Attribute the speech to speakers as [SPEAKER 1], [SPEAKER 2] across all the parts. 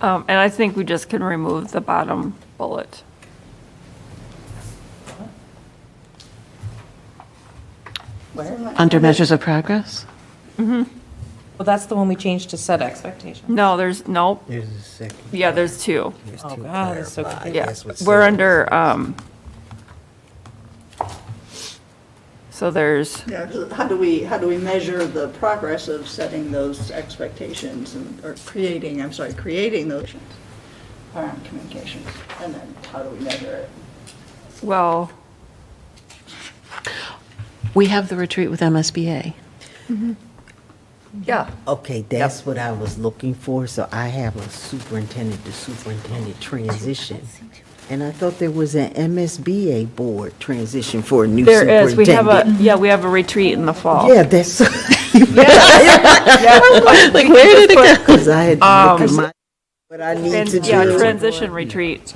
[SPEAKER 1] Um, And I think we just can remove the bottom bullet.
[SPEAKER 2] Under measures of progress?
[SPEAKER 3] Well, that's the one we changed to set expectations.
[SPEAKER 1] No, there's, nope,
[SPEAKER 4] There's a second.
[SPEAKER 1] yeah, there's two.
[SPEAKER 4] There's
[SPEAKER 3] Oh,
[SPEAKER 4] two
[SPEAKER 1] Ah,
[SPEAKER 3] God, it's so
[SPEAKER 4] clarified.
[SPEAKER 3] confusing.
[SPEAKER 1] Yeah,
[SPEAKER 4] That's what
[SPEAKER 1] we're
[SPEAKER 4] Sarah
[SPEAKER 1] under, um, so there's,
[SPEAKER 5] Yeah, 'cause how do we, how do we measure the progress of setting those expectations and, or creating, I'm sorry, creating those around communications? And then how do we measure it?
[SPEAKER 1] well,
[SPEAKER 2] We have the retreat with MSBA.
[SPEAKER 1] yeah,
[SPEAKER 4] Okay, that's what I was looking for, so I have a superintendent to superintendent transition. And I thought there was an MSBA board transition for a new
[SPEAKER 1] there is, we have a,
[SPEAKER 4] superintendent.
[SPEAKER 1] yeah, we have a retreat in the fall.
[SPEAKER 4] Yeah, that's,
[SPEAKER 2] Like, where did it go?
[SPEAKER 4] because I had to look at my, what I need to
[SPEAKER 1] And, Um, yeah,
[SPEAKER 4] do.
[SPEAKER 1] transition retreat,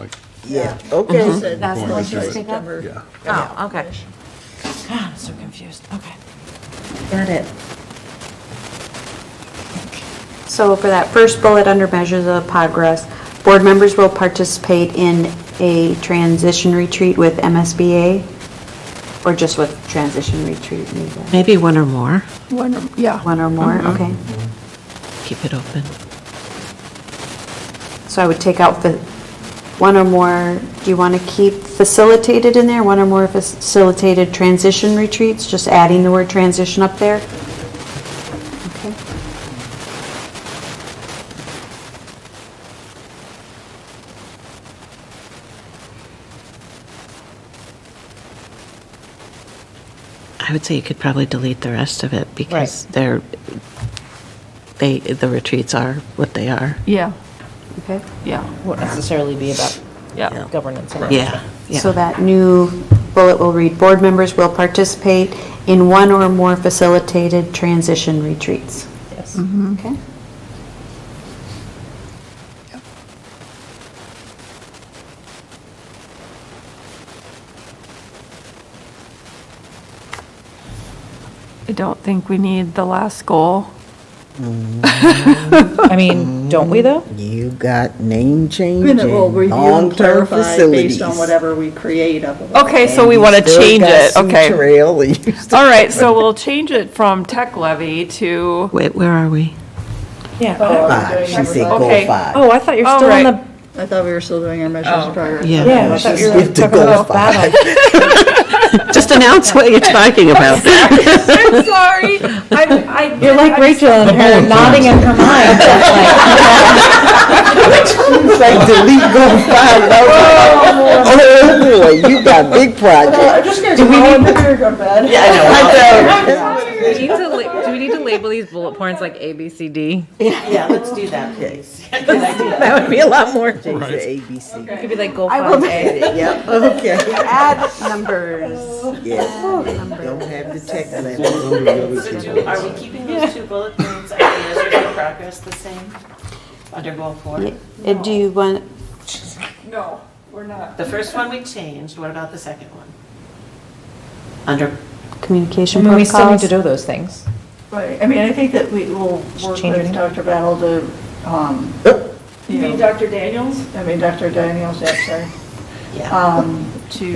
[SPEAKER 4] Yeah, okay.
[SPEAKER 3] That's the one you just
[SPEAKER 6] Yeah.
[SPEAKER 3] Oh, okay. God, I'm so confused, okay.
[SPEAKER 7] Got it. So for that first bullet under measures of progress, board members will participate in a transition retreat with MSBA? Or just with transition retreat, maybe?
[SPEAKER 2] Maybe one or more.
[SPEAKER 1] one, yeah.
[SPEAKER 7] one or more, okay?
[SPEAKER 2] Uh-huh. Keep it open.
[SPEAKER 7] So I would take out the, one or more, do you want to keep facilitated in there? One or more facilitated transition retreats, just adding the word transition up there? Okay.
[SPEAKER 2] I would say you could probably delete the rest of it because they're, they, the retreats are what they are.
[SPEAKER 1] Yeah,
[SPEAKER 7] Okay.
[SPEAKER 1] yeah,
[SPEAKER 3] Won't necessarily be about
[SPEAKER 1] yeah.
[SPEAKER 3] governance. and
[SPEAKER 2] Yeah, yeah.
[SPEAKER 7] So that new bullet will read, "Board members will participate in one or more facilitated transition retreats."
[SPEAKER 3] Yes.
[SPEAKER 7] Okay?
[SPEAKER 1] I don't think we need the last goal.
[SPEAKER 3] I mean, don't we though?
[SPEAKER 4] You got name
[SPEAKER 5] I
[SPEAKER 4] change
[SPEAKER 5] mean, it will
[SPEAKER 4] and
[SPEAKER 5] review and
[SPEAKER 4] long-term
[SPEAKER 5] clarify
[SPEAKER 4] facilities.
[SPEAKER 5] based on whatever we create up above.
[SPEAKER 1] Okay, so we
[SPEAKER 4] You
[SPEAKER 1] want to
[SPEAKER 4] still
[SPEAKER 1] change
[SPEAKER 4] got
[SPEAKER 1] it,
[SPEAKER 4] some
[SPEAKER 1] okay.
[SPEAKER 4] trail and you still-
[SPEAKER 1] All right, so we'll change it from tech levy to,
[SPEAKER 2] Wait, where are we?
[SPEAKER 3] Yeah.
[SPEAKER 4] Five, she said
[SPEAKER 1] Okay.
[SPEAKER 4] goal five.
[SPEAKER 3] uh, Oh, I thought you were
[SPEAKER 1] All
[SPEAKER 3] still on
[SPEAKER 1] right.
[SPEAKER 3] the,
[SPEAKER 5] I thought we were still doing our measures of progress.
[SPEAKER 2] Yeah.
[SPEAKER 3] Oh. yeah, I thought you were
[SPEAKER 4] Skip to
[SPEAKER 3] talking
[SPEAKER 4] goal
[SPEAKER 3] about
[SPEAKER 4] five.
[SPEAKER 3] bottom.
[SPEAKER 2] Just announce what you're talking about.
[SPEAKER 1] I'm sorry, I'm, I.
[SPEAKER 3] You're like Rachel and her nodding in her mind.
[SPEAKER 4] Like delete goal five. and I was like, Oh, boy, you got big projects.
[SPEAKER 5] I'm just gonna go home and then go to bed.
[SPEAKER 8] Do we need to la- do we need to label these bullet points like A, B, C, D?
[SPEAKER 4] Yeah, let's do that, please.
[SPEAKER 3] That would be a lot more.
[SPEAKER 4] Change to ABC.
[SPEAKER 3] Could be like goal five A.
[SPEAKER 4] Yep, okay.
[SPEAKER 7] Add numbers.
[SPEAKER 4] Yes. Don't have the tech level.
[SPEAKER 9] So do, are we keeping those two bullet points under measures of progress the same under goal four?
[SPEAKER 7] And do you want,
[SPEAKER 1] No, we're not.
[SPEAKER 9] The first one we changed, what about the second one? Under,
[SPEAKER 7] communication
[SPEAKER 3] I mean, we
[SPEAKER 7] protocols?
[SPEAKER 3] still need to do those things.
[SPEAKER 5] Right, I mean, I think that we will work
[SPEAKER 3] change
[SPEAKER 5] with
[SPEAKER 3] it.
[SPEAKER 5] Dr. Battle to, um, you know,
[SPEAKER 1] Dr. Daniels?
[SPEAKER 5] I mean, Dr. Daniels, yeah, sorry,
[SPEAKER 9] yeah.
[SPEAKER 5] um, to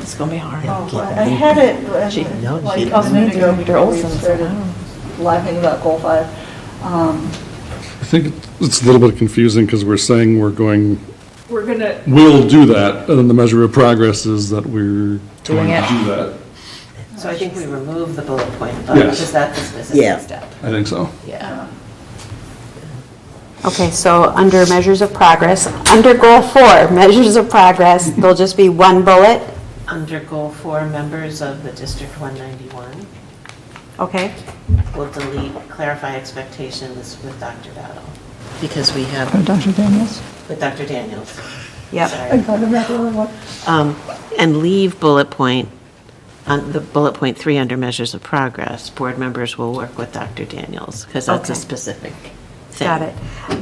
[SPEAKER 3] It's gonna be hard.
[SPEAKER 5] Oh, I I had it, uh,
[SPEAKER 4] no,
[SPEAKER 5] like,
[SPEAKER 4] she-
[SPEAKER 5] a minute ago,
[SPEAKER 3] Dr.
[SPEAKER 5] before we
[SPEAKER 3] Olson, so
[SPEAKER 5] started
[SPEAKER 3] I
[SPEAKER 5] laughing about goal five. Um,
[SPEAKER 6] I think it's a little bit confusing because we're saying we're going,
[SPEAKER 1] We're gonna,
[SPEAKER 6] we'll do that, and then the measure of progress is that we're going to
[SPEAKER 3] it.
[SPEAKER 6] do that.
[SPEAKER 9] So I think we remove the bullet point above,
[SPEAKER 6] Yes.
[SPEAKER 9] because that is the
[SPEAKER 4] Yeah.
[SPEAKER 9] second step.
[SPEAKER 6] I think so.
[SPEAKER 9] Yeah.
[SPEAKER 7] Okay, so under measures of progress, under goal four, measures of progress, there'll just be one bullet,
[SPEAKER 9] Under goal four, members of the District 191
[SPEAKER 7] okay?
[SPEAKER 9] will delete, clarify expectations with Dr. Battle,
[SPEAKER 2] Because we have,
[SPEAKER 9] with Dr. Daniels.
[SPEAKER 7] Yep,
[SPEAKER 9] Sorry.
[SPEAKER 2] um, and leave bullet point, on the bullet point three under measures of progress, board members will work with Dr. Daniels because that's a
[SPEAKER 7] Okay.
[SPEAKER 2] specific thing.
[SPEAKER 7] got it.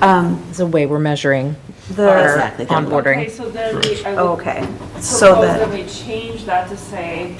[SPEAKER 7] Um,
[SPEAKER 3] It's a way we're measuring
[SPEAKER 7] The,
[SPEAKER 2] Exactly.
[SPEAKER 3] onboarding.
[SPEAKER 1] okay, so then we, I would
[SPEAKER 7] okay, so
[SPEAKER 1] propose Oh, that
[SPEAKER 7] that,
[SPEAKER 1] we change that to say